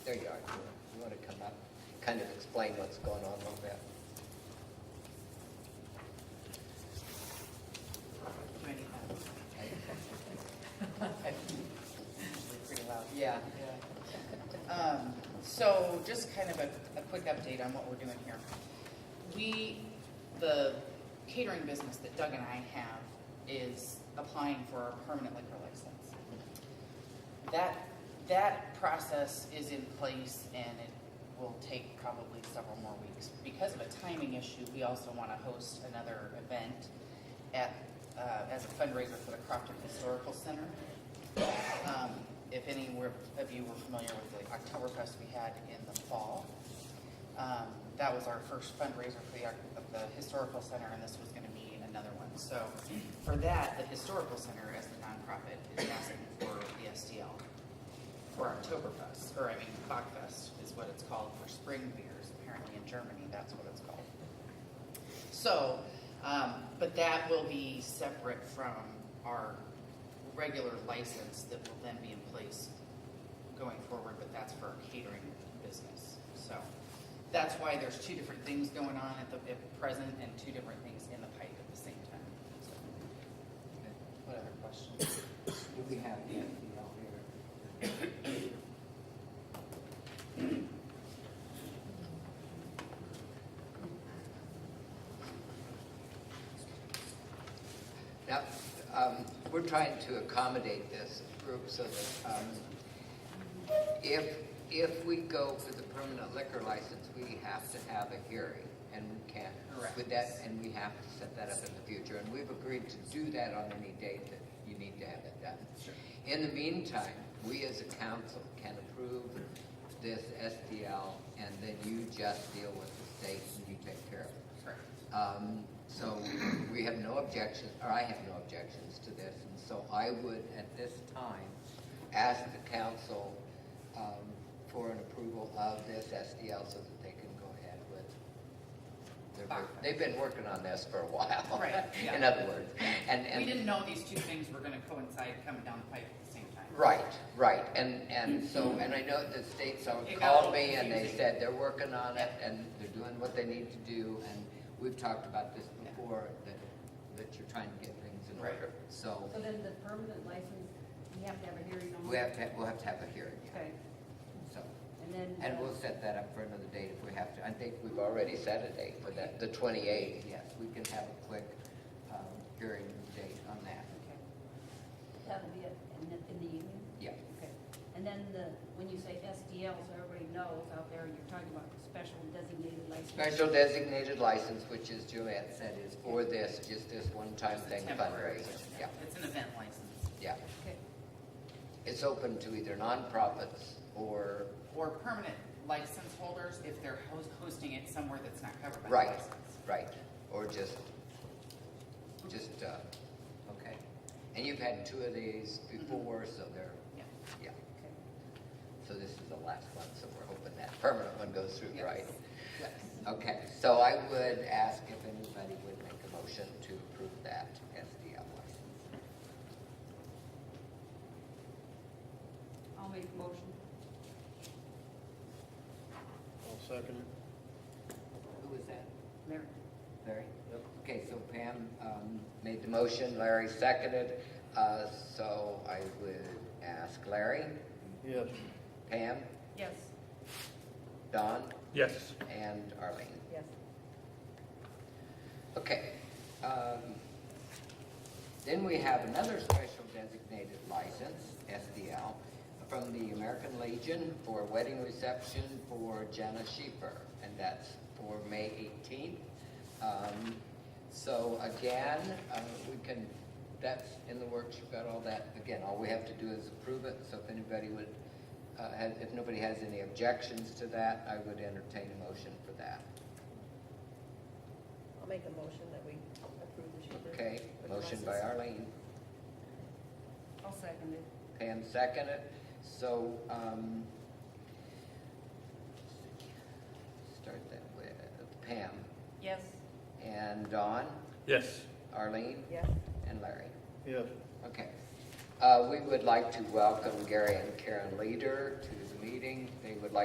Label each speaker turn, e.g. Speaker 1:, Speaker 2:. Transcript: Speaker 1: kind of explain what's going on a little bit.
Speaker 2: Pretty loud. Pretty loud, yeah. Um, So just kind of a, a quick update on what we're doing here. We, the catering business that Doug and I have is applying for our permanent liquor license. That, that process is in place and it will take probably several more weeks. Because of a timing issue, we also want to host another event at, uh, as a fundraiser for the Crofton Historical Center. Um, If any were- of you were familiar with the Oktoberfest we had in the fall, um, that was our first fundraiser for the, Oc- of the Historical Center, and this was going to be another one. So for that, the Historical Center, as the nonprofit, is asking for the STL for Oktoberfest, or I mean, Bachfest is what it's called for spring beers. Apparently in Germany, that's what it's called. So, um, but that will be separate from our regular license that will then be in place going forward, but that's for our catering business. So that's why there's two different things going on at the, at present and two different things in the pipe at the same time. So, What other questions?
Speaker 3: Do we have the FPL here?
Speaker 1: Now, um, we're trying to accommodate this group so that, um, if, if we go for the permanent liquor license, we have to have a hearing, and we can't.
Speaker 2: Correct.
Speaker 1: With that, and we have to set that up in the future, and we've agreed to do that on any date that you need to have it done.
Speaker 2: Sure.
Speaker 1: In the meantime, we as a council can approve this STL, and then you just deal with the state and you take care of it.
Speaker 2: Correct.
Speaker 1: Um, So we have no objections, or I have no objections to this, and so I would, at this time, ask the council um, for an approval of this SDL so that they can go ahead with. their work. They've been working on this for a while.
Speaker 2: Right, yeah.
Speaker 1: In other words, and, and.
Speaker 2: We didn't know these two things were gonna coincide coming down the pipe at the same time.
Speaker 1: Right, right, and, and so, and I know the states all
Speaker 2: It got a
Speaker 1: called
Speaker 2: little
Speaker 1: me and they
Speaker 2: confusing.
Speaker 1: said they're working on it and they're doing what they need to do, and we've talked about this
Speaker 2: Yeah.
Speaker 1: before, that, that you're trying to get things in
Speaker 2: Right.
Speaker 1: order. So,
Speaker 4: So then the permanent license, we have to have a hearing on?
Speaker 1: we have to, we'll have to have a hearing, yeah,
Speaker 4: Okay,
Speaker 1: so,
Speaker 4: and then.
Speaker 1: and we'll set that up for another date if we have to, I think we've already set a date for that, the twenty-eighth, yes, we can have a quick, um, hearing date on that,
Speaker 4: Okay. That'll be it, in the, in the evening?
Speaker 1: yeah.
Speaker 4: Okay. And then the, when you say SDL, so everybody knows out there, you're talking about special designated license.
Speaker 1: Special designated license, which is Joanne said, is for this, just this one-time
Speaker 2: It's a
Speaker 1: thing
Speaker 2: temporary
Speaker 1: fundraiser.
Speaker 2: thing.
Speaker 1: Yeah,
Speaker 2: It's an event license.
Speaker 1: yeah.
Speaker 4: Okay,
Speaker 1: It's open to either nonprofits or,
Speaker 2: or permanent license holders if they're hos- hosting it somewhere that's not covered by the
Speaker 1: Right.
Speaker 2: license.
Speaker 1: right, or just, just, uh, okay. And you've had two of these before, so they're,
Speaker 2: Yeah.
Speaker 1: yeah.
Speaker 4: okay.
Speaker 1: So this is the last one, so we're hoping that permanent one goes through,
Speaker 2: Yes.
Speaker 1: right?
Speaker 2: Yes.
Speaker 1: Okay, so I would ask if anybody would make a motion to approve that SDL license.
Speaker 4: I'll make a motion.
Speaker 5: I'll second it.
Speaker 1: Who was that?
Speaker 4: Larry.
Speaker 1: Larry? Okay, so Pam um, made the motion, Larry seconded, Uh, so I would ask Larry,
Speaker 5: Yes.
Speaker 1: Pam,
Speaker 4: Yes.
Speaker 1: Don,
Speaker 5: Yes.
Speaker 1: and Arlene.
Speaker 4: Yes.
Speaker 1: Okay. um, Then we have another special designated license, SDL, from the American Legion for wedding reception for Jana Sheeper, and that's for May 18th. Um, So again, uh, we can, that's in the works, you've got all that. Again, all we have to do is approve it, so if anybody would, uh, has- if nobody has any objections to that, I would entertain a motion for that.
Speaker 6: I'll make a motion that we approve the Schaefer.
Speaker 1: Okay,
Speaker 6: with the
Speaker 1: motion by
Speaker 6: license.
Speaker 1: Arlene,
Speaker 4: I'll second it.
Speaker 1: Pam seconded, so, um, start that with Pam
Speaker 4: Yes.
Speaker 1: and Dawn,
Speaker 5: Yes.
Speaker 1: Arlene,
Speaker 6: Yes,
Speaker 1: and Larry.
Speaker 5: Yes.
Speaker 1: Okay. Uh, we would like to welcome Gary and Karen Leader to the meeting. They would like